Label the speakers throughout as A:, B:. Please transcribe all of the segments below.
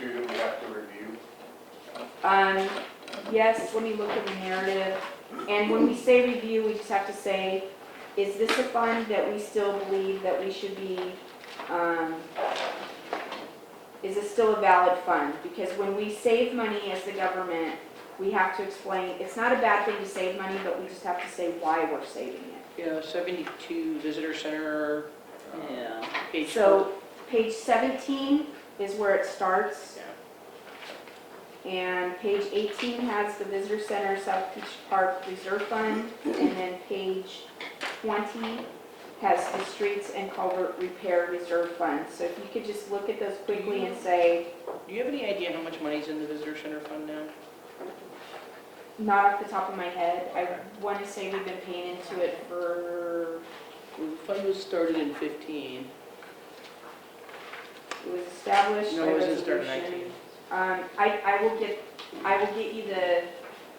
A: two that we have to review?
B: Um, yes, let me look at the narrative. And when we say review, we just have to say, is this a fund that we still believe that we should be, um, is this still a valid fund? Because when we save money as the government, we have to explain, it's not a bad thing to save money, but we just have to say why we're saving it.
C: Yeah, 72 Visitor Center, yeah, page
B: So page 17 is where it starts.
C: four.
B: And page 18 has the Visitor Center South Beach Park Reserve Fund. And then page 20 has the Streets and Culvert Repair Reserve Fund. So if you could just look at those quickly and say,
C: Do you have any idea how much money's in the Visitor Center Fund now?
B: not off the top of my head, I want to say we've been paying into it for,
C: The fund was started in 15.
B: it was established
C: No,
B: by
C: it wasn't started in
B: resolution.
C: 19.
B: Um, I, I will get, I will get you the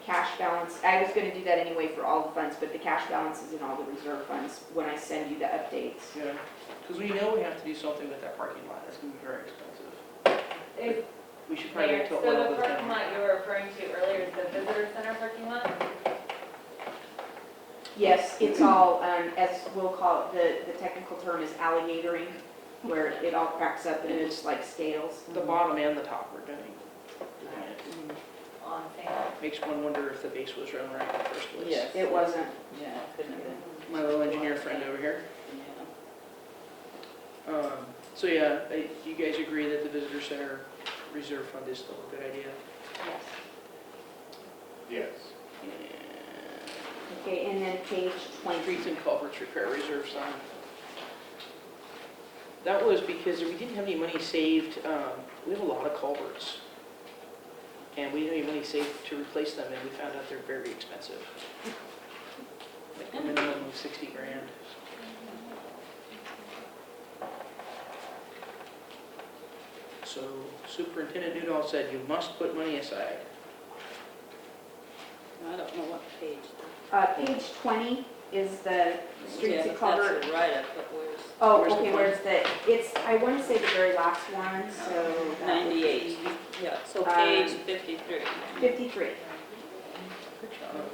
B: cash balance, I was gonna do that anyway for all the funds, but the cash balance is in all the reserve funds when I send you the updates.
C: Yeah, because we know we have to do something with that parking lot, it's gonna be very expensive.
D: If-
C: We should probably
D: Mayor,
C: wait till
D: so
C: oil
D: the
C: goes
D: parking
C: down.
D: lot you were referring to earlier is the visitor center parking lot?
B: Yes, it's all, um, as we'll call it, the, the technical term is alligatoring, where it all cracks up and it's like scales.
C: The bottom and the top are doing, doing it.
D: On sale.
C: Makes one wonder if the base was run right in the first place.
E: Yes.
B: It wasn't,
E: Yeah, couldn't have been,
C: My little engineer friend over here.
E: yeah.
C: Um, So yeah, I- you guys agree that the visitor center reserve fund is still a good idea?
D: Yes.
A: Yes.
B: okay, and then page twenty.
C: Streets and culverts repair reserve fund. That was because we didn't have any money saved, um, we have a lot of culverts. And we didn't have any money saved to replace them, and we found out they're very expensive. Like a minimum of 60 grand. So Superintendent Newdall said, you must put money aside.
E: I don't know what page.
B: Uh, page twenty is the streets
E: Yeah,
B: and culvert.
E: That's the write-up, but where's?
B: Oh,
C: Where's the
B: okay,
C: one?
B: where's the, it's, I wanna say the very last one, so. that would
E: 98.
B: be
E: Yeah, so
B: Um,
E: page 53.
B: Fifty-three.
C: Good job.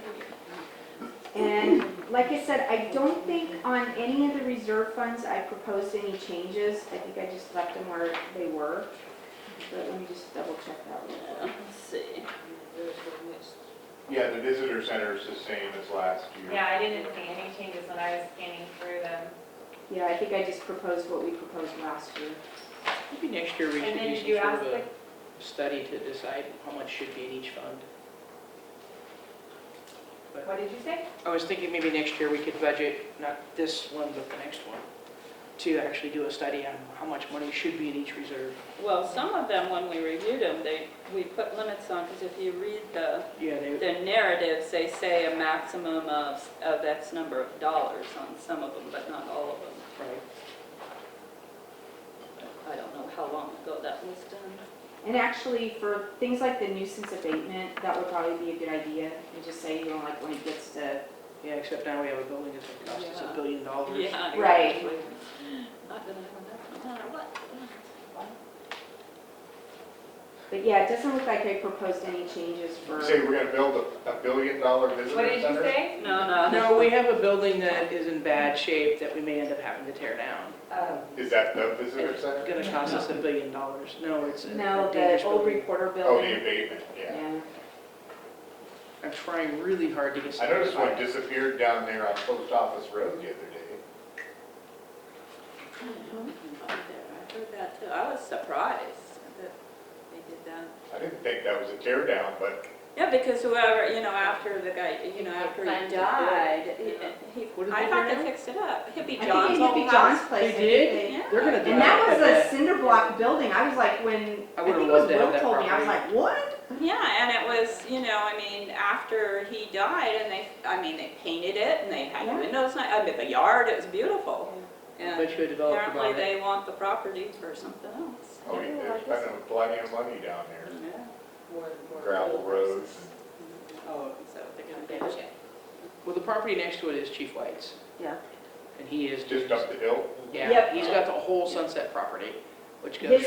B: And like I said, I don't think on any of the reserve funds I proposed any changes. I think I just left them where they were. But let me just double check that one.
E: Yeah, Let's see.
A: Yeah, the visitor center is the same as last year.
D: Yeah, I didn't see any changes when I was scanning through them.
B: Yeah, I think I just proposed what we proposed last year.
C: Maybe next year we
D: And
C: should
D: then
C: do
D: did you
C: some
D: ask
C: sort of
D: the,
C: a study to decide how much should be in each fund.
D: what did you say?
C: I was thinking maybe next year we could budget, not this one, but the next one, to actually do a study on how much money should be in each reserve.
E: Well, some of them, when we reviewed them, they, we put limits on, because if you read the,
C: Yeah, they,
E: the narratives, they say a maximum of, of X number of dollars on some of them, but not all of them.
C: right.
E: I don't know how long ago that was done.
B: And actually, for things like the nuisance abatement, that would probably be a good idea. And just say, you know, like when it gets to,
C: Yeah, except now we have a building that's gonna cost us
E: Yeah.
C: a billion dollars.
E: Yeah.
B: Right.
E: Not gonna have enough, no matter what.
B: but yeah, it doesn't look like I proposed any changes for.
A: You say we're gonna build a, a billion dollar
D: What
A: visitor
D: did you
A: center?
D: say?
E: No, no.
C: No, we have a building that is in bad shape that we may end up having to tear down.
B: um,
D: Oh,
A: Is that the visitor
C: It's
A: center?
C: gonna cost us a billion dollars. No, it's a
B: No,
C: a
B: the
C: dangerous
B: old
C: building.
B: reporter
A: Oh, the
B: building.
A: abatement, yeah.
B: Yeah.
C: I'm trying really hard to get.
A: I
C: something
A: noticed
C: about
A: one
C: it.
A: disappeared down there on Post Office Road the other day.
E: I heard that too. I was surprised that they did that.
A: I didn't think that was a tear down, but
E: Yeah, because whoever, you know, after the guy, you know, after he died, he, he-
C: What did
E: I
C: they
E: thought
C: do
E: they
C: now?
E: fixed it up. Hippie
B: I
E: John's
B: think it
E: old
B: be
E: house.
B: John's place.
C: They
B: I think
C: did?
B: they-
E: Yeah.
C: They're gonna do
B: And that
C: I
B: was
C: bet.
B: a cinder block building, I was like, when,
C: I
B: I
C: would've
B: think it was
C: loved to have
B: Will
C: that
B: told me, I was like,
C: property.
B: what?
E: Yeah, and it was, you know, I mean, after he died and they, I mean, they painted it and they had
B: Yeah.
E: windows, ni- I mean, the yard, it was beautiful. And
C: Bet you a developer
E: apparently
C: bought it.
E: they want the property for something else.
A: oh, yeah, they're spending plenty of money down there. Gravel roads.
E: Oh, so they're gonna ditch it.
C: Well, the property next to it is Chief White's.
B: Yeah.
C: And he is.
A: Just up the hill.
C: Yeah,
B: Yep.
C: he's got the whole Sunset property, which goes.
B: His